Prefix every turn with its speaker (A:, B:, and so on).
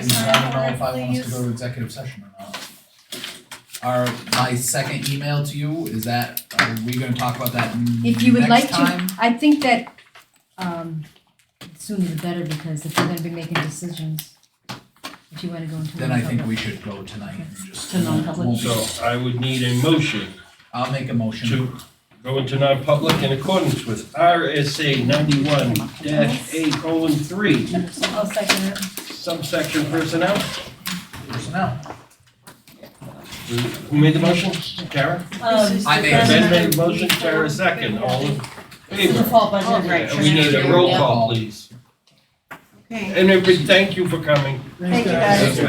A: I don't know if I want us to go to executive session or not. Our, my second email to you, is that, are we gonna talk about that next time?
B: If you would like to- I think that, um, sooner the better, because if we're gonna be making decisions, if you wanna go into.
A: Then I think
B: non-public-
A: we should go tonight and just.
B: To non-public.
A: won't be-
C: So I would need a motion
A: I'll make a motion.
C: to go into non-public in accordance with RSA ninety-one dash eight colon three,
B: I'll second it.
C: subsection personnel.
A: Personnel.
C: Who made the motion? Kara?
D: Um,
A: I made
C: Ben made the motion, Kara second, all in
D: it's a
C: favor?
D: full budget, right?
C: And we need a roll
A: Yeah.
C: call, please.
D: Okay.
C: And everybody, thank you for coming.
D: Thank you, guys.